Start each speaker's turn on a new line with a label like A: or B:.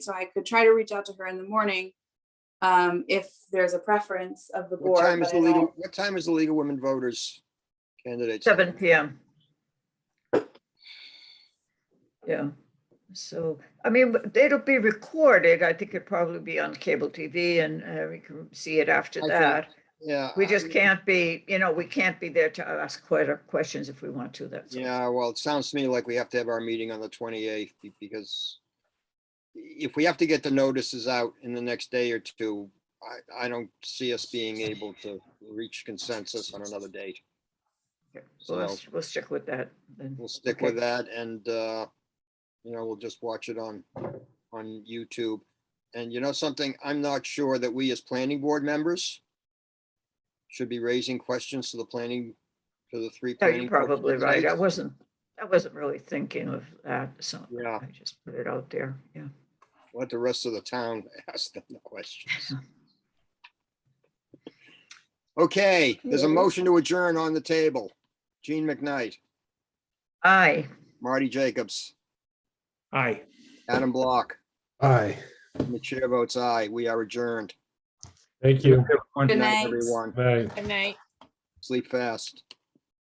A: so I could try to reach out to her in the morning. Um, if there's a preference of the
B: What
A: board,
B: time is
A: but
B: the
A: I
B: League, of-
A: don't-
B: what time is the League of Women Voters candidates?
C: Seven PM. Yeah, so, I mean, but it'll be recorded. I think it'll probably be on cable TV and uh, we can see it after
B: I think- um,
C: that.
B: Yeah. uh,
C: We
B: I-
C: just can't be, you know, we can't be there to ask quite a questions if we want to, that's. all.
B: Yeah, well, it sounds to me like we have to have our meeting on the twenty-eighth because if we have to get the notices out in the next day or two, I, I don't see us being able to reach consensus on another date.
C: We'll,
B: So
C: we'll stick with that then.
B: we'll stick
C: okay.
B: with that and, uh, you know, we'll just watch it on, on YouTube. And you know something, I'm not sure that we as planning board members should be raising questions to the planning, to the three.
C: Yeah,
B: planning
C: Oh, you're
B: board
C: probably right. I
B: candidates.
C: wasn't, I wasn't really thinking of that, so
B: Yeah.
C: I just put it out there, yeah.
B: let the rest of the town ask them the questions. Okay, there's a
C: Okay.
B: motion to adjourn on the table. Gene McKnight,
C: Aye,
B: Marty Jacobs,
D: Aye.
B: Adam Block,
D: Aye.
B: and the chair votes aye. We are adjourned.
D: Thank you.
A: Good night.
B: Everyone,
D: Bye.
E: Good night.
B: sleep fast.